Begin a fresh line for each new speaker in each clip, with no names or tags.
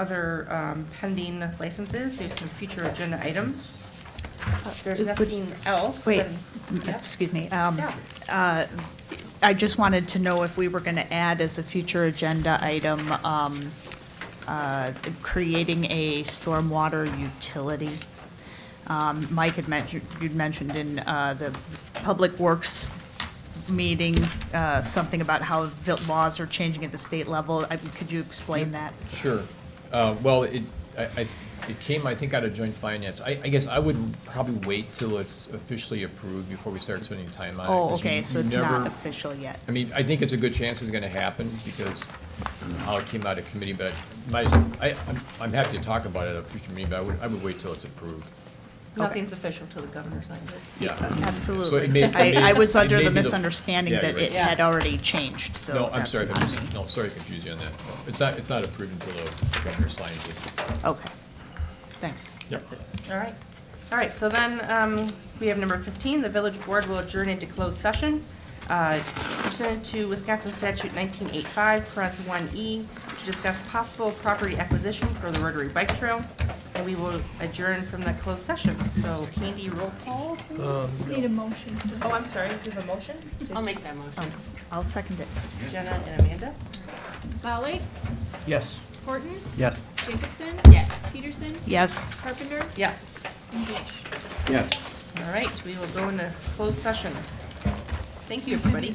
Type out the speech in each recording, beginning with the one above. other um, pending licenses. We have some future agenda items. If There's
Uh, Would-
nothing else.
Wait,
then-
m-
Yes?
excuse me. um,
Yeah.
uh, I just wanted to know if we were going to add as a future agenda item, um, uh, creating a stormwater utility. Um, Mike had mentioned, you'd mentioned in uh, the Public Works meeting, uh, something about how the laws are changing at the state level. I- Could you explain that?
Sure. Uh, Well, it, I, I- it came, I think, out of joint finance. I, I guess I would probably wait till it's officially approved before we start spending time on it.
Oh,
'cause you-
okay, so
you
it's
never-
not official yet.
I mean, I think it's a good chance it's gonna happen because how it came out of committee, but my, I, I'm- I'm happy to talk about it at a future meeting, but I would, I would wait till it's approved.
Nothing's official till the governor signs it.
Yeah. So it
Absolutely.
may- it may-
I, I was
it
under
may
the
be the-
misunderstanding
Yeah,
that
you're
it
right.
had already changed, so.
No, I'm
that's
sorry, if I
on
mis-
me.
no, sorry to confuse you on that. It's not, it's not approved until the governor signs it.
Okay, thanks.
Yep.
That's it.
All right. All right, so then um, we have number 15, the village board will adjourn into closed session uh, pursuant to Wisconsin statute 1985, parent 1E, E, to discuss possible property acquisition for the Rotary Bike Trail, and we will adjourn from the closed session. So Candy, roll call, please.
Need a motion.
Oh, I'm sorry, do you have a motion?
I'll make that motion.
I'll second it.
Jenna and Amanda?
Molly,
Yes.
Horton,
Yes.
Jacobson,
Yes.
Peterson,
Yes?
Carpenter,
Yes.
and Bush.
Yes.
All right, we will go into closed session. Thank you, everybody.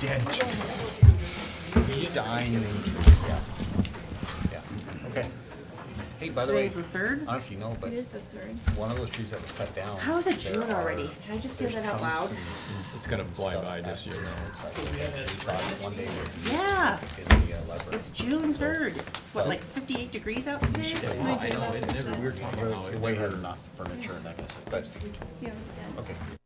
Dead trees. Dying trees, yeah. Yeah, okay. Hey, by the way, I
Today's the
don't
third.
know if you know, but
It is the third.
one of those trees that was cut down.
How is it
there
June
are
already? Can I just say that out loud?
It's gonna fly by this year.
outside of the property. One day we're
Yeah,
in the uh, library.
it's June third. What, like fifty-eight degrees out today?
I know, it never, we were talking about it.
Way ahead of not furniture and that kind of stuff, but,
You have a set.
okay.